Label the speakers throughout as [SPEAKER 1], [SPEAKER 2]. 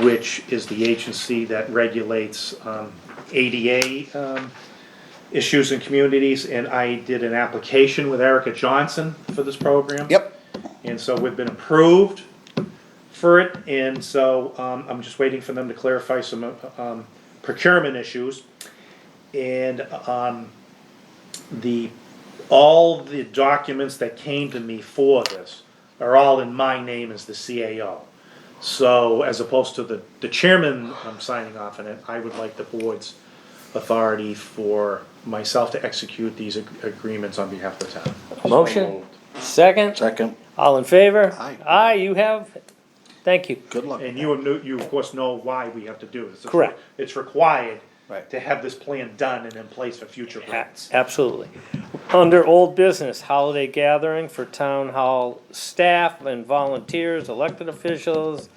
[SPEAKER 1] which is the agency that regulates um, ADA um, issues in communities. And I did an application with Erica Johnson for this program.
[SPEAKER 2] Yep.
[SPEAKER 1] And so we've been approved for it, and so um, I'm just waiting for them to clarify some um, procurement issues. And um, the, all the documents that came to me for this are all in my name as the CAO. So as opposed to the, the chairman um, signing off on it, I would like the board's authority for myself to execute these ag- agreements on behalf of the town.
[SPEAKER 3] Motion, second,
[SPEAKER 2] Second.
[SPEAKER 3] all in favor?
[SPEAKER 2] Aye.
[SPEAKER 3] Aye, you have, thank you.
[SPEAKER 2] Good luck.
[SPEAKER 1] And you, know- you of course know why we have to do this. It's-
[SPEAKER 3] Correct.
[SPEAKER 1] It's required
[SPEAKER 2] Right.
[SPEAKER 1] to have this plan done and in place for future
[SPEAKER 3] A-
[SPEAKER 1] grants.
[SPEAKER 3] Absolutely. Under old business, holiday gathering for town hall staff and volunteers, elected officials,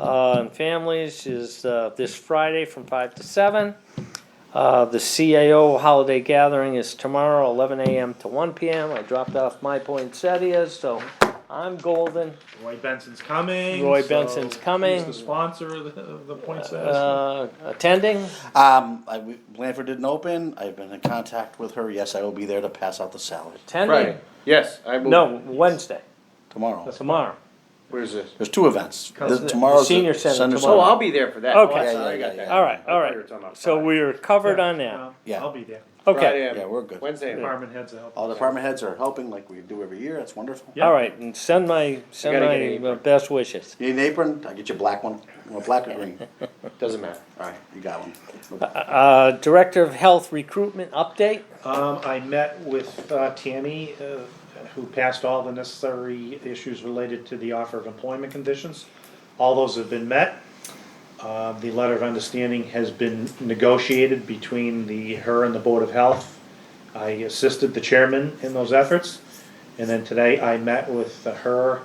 [SPEAKER 3] uh, and families is, uh, this Friday from five to seven. Uh, the CAO holiday gathering is tomorrow, eleven AM to one PM. I dropped off my poinsettias, so I'm golden.
[SPEAKER 1] Roy Benson's coming.
[SPEAKER 3] Roy
[SPEAKER 1] so
[SPEAKER 3] Benson's coming.
[SPEAKER 1] He's the sponsor of the, of the poinsettias.
[SPEAKER 3] Uh, attending,
[SPEAKER 2] Um, I, Blanford didn't open. I've been in contact with her. Yes, I will be there to pass out the salad
[SPEAKER 3] attending,
[SPEAKER 4] Yes, I will.
[SPEAKER 3] no, Wednesday,
[SPEAKER 2] tomorrow.
[SPEAKER 3] tomorrow.
[SPEAKER 4] Where's this?
[SPEAKER 2] There's two events.
[SPEAKER 1] Comes
[SPEAKER 2] The-
[SPEAKER 1] to the
[SPEAKER 2] Tomorrow's
[SPEAKER 3] senior
[SPEAKER 2] the
[SPEAKER 3] center
[SPEAKER 4] Oh,
[SPEAKER 3] tomorrow.
[SPEAKER 4] I'll be there for that.
[SPEAKER 3] Okay.
[SPEAKER 4] Oh, I
[SPEAKER 3] Yeah,
[SPEAKER 4] saw- I
[SPEAKER 2] yeah,
[SPEAKER 4] got
[SPEAKER 2] yeah,
[SPEAKER 4] that.
[SPEAKER 2] yeah.
[SPEAKER 3] All right,
[SPEAKER 4] I
[SPEAKER 3] all
[SPEAKER 4] thought you were
[SPEAKER 3] right.
[SPEAKER 4] talking about
[SPEAKER 3] So
[SPEAKER 4] Friday.
[SPEAKER 3] we are covered on
[SPEAKER 1] Um,
[SPEAKER 3] that.
[SPEAKER 2] Yeah.
[SPEAKER 1] I'll be there.
[SPEAKER 3] Okay,
[SPEAKER 4] Friday, I'm-
[SPEAKER 2] Yeah, we're good.
[SPEAKER 4] Wednesday. I'm-
[SPEAKER 1] Department heads will help.
[SPEAKER 2] Oh, All department heads are helping like we do every year. That's wonderful.
[SPEAKER 1] Yeah.
[SPEAKER 3] all right, and send my, send
[SPEAKER 4] gotta get
[SPEAKER 3] my uh,
[SPEAKER 4] an
[SPEAKER 3] best wishes.
[SPEAKER 2] You need an apron? I'll get you a black one. You want black or green? All
[SPEAKER 4] Doesn't matter.
[SPEAKER 2] right, you got one.
[SPEAKER 3] Uh, Director of Health Recruitment Update,
[SPEAKER 1] Um, I met with, uh, Tammy, uh, who passed all the necessary issues related to the offer of employment conditions. All those have been met. Uh, the letter of understanding has been negotiated between the, her and the Board of Health. I assisted the chairman in those efforts. And then today I met with her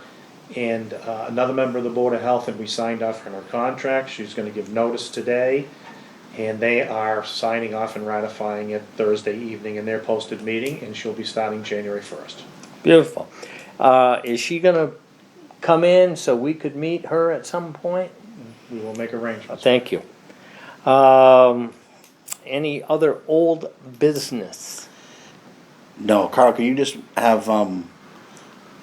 [SPEAKER 1] and, uh, another member of the Board of Health and we signed off on her contract. She's gonna give notice today. And they are signing off and ratifying it Thursday evening in their posted meeting, and she'll be starting January first.
[SPEAKER 3] beautiful. Uh, is she gonna come in so we could meet her at some point? Uh,
[SPEAKER 1] We will make arrangements.
[SPEAKER 3] Thank you. Um, any other old business?
[SPEAKER 2] No, Carl, can you just have um,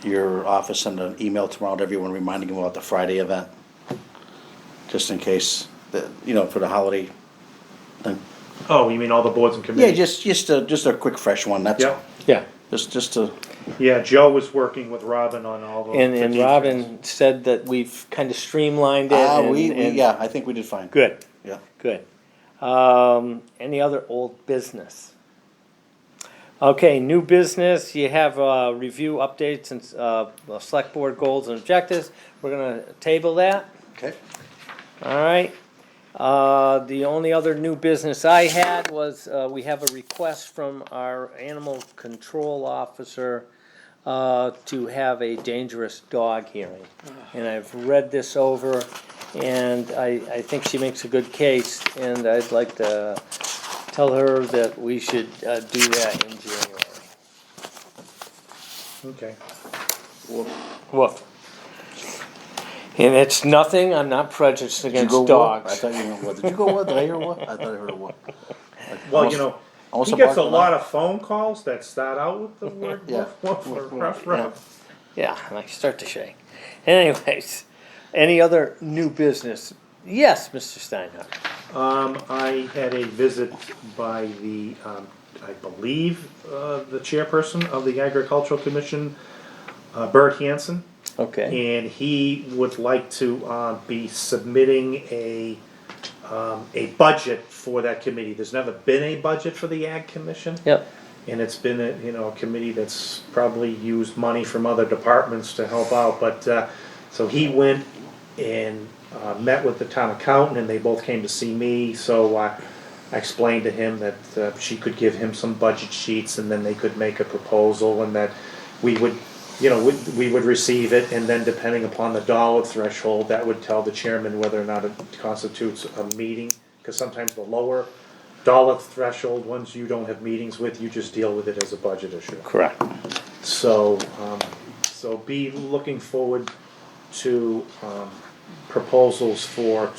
[SPEAKER 2] your office send an email tomorrow to everyone reminding them about the Friday event? Just in case, the, you know, for the holiday thing.
[SPEAKER 1] Oh, you mean all the boards and
[SPEAKER 2] Yeah,
[SPEAKER 1] committees?
[SPEAKER 2] just just a just a quick fresh one. That's
[SPEAKER 1] Yeah,
[SPEAKER 2] all.
[SPEAKER 3] Yeah.
[SPEAKER 2] Just just to
[SPEAKER 1] yeah, Joe was working with Robin on all those.
[SPEAKER 3] And, and Robin said that we've kind of streamlined it
[SPEAKER 2] ah,
[SPEAKER 3] and-
[SPEAKER 2] we, we
[SPEAKER 3] and-
[SPEAKER 2] yeah, I think we did fine.
[SPEAKER 3] Good.
[SPEAKER 2] Yeah.
[SPEAKER 3] Good. Um, any other old business? Okay, new business, you have, uh, review updates and, uh, well, select board goals and objectives, we're gonna table that,
[SPEAKER 2] Okay.
[SPEAKER 3] alright? Uh, the only other new business I had was, uh, we have a request from our animal control officer, uh, to have a dangerous dog hearing. And I've read this over, and I, I think she makes a good case, and I'd like to tell her that we should uh, do that in January.
[SPEAKER 1] Okay,
[SPEAKER 3] Woof. And it's nothing, I'm not prejudiced
[SPEAKER 2] Did you
[SPEAKER 3] against
[SPEAKER 2] go
[SPEAKER 3] dogs.
[SPEAKER 2] What? I thought you went what? Did you go what? Did I hear what? I thought I heard a what. Like,
[SPEAKER 1] well,
[SPEAKER 2] almost-
[SPEAKER 1] you know,
[SPEAKER 2] almost
[SPEAKER 1] he gets a
[SPEAKER 2] barking
[SPEAKER 1] lot
[SPEAKER 2] laugh.
[SPEAKER 1] of phone calls that start out with the word
[SPEAKER 2] Yeah.
[SPEAKER 1] woof, woof, or ruff,
[SPEAKER 2] Yeah.
[SPEAKER 1] ruff.
[SPEAKER 3] Yeah, and I start to shake. Anyways, any other new business? Yes, Mr. Steinhardt.
[SPEAKER 1] Um, I had a visit by the, um, I believe, uh, the chairperson of the Agricultural Commission, uh, Bert Hanson.
[SPEAKER 3] Okay.
[SPEAKER 1] and he would like to uh, be submitting a um, a budget for that committee. There's never been a budget for the Ag Commission,
[SPEAKER 3] Yep.
[SPEAKER 1] and it's been a you know a committee that's probably used money from other departments to help out. But uh, so he went and uh, met with the town accountant, and they both came to see me. So. Uh, I explained to him that uh, she could give him some budget sheets and then they could make a proposal and that we would, you know, we, we would receive it and then depending upon the dollar threshold, that would tell the chairman whether or not it constitutes a meeting. Because sometimes the lower dollar threshold ones you don't have meetings with, you just deal with it as a budget issue.
[SPEAKER 3] Correct.
[SPEAKER 1] So, um, so be looking forward to, um, proposals for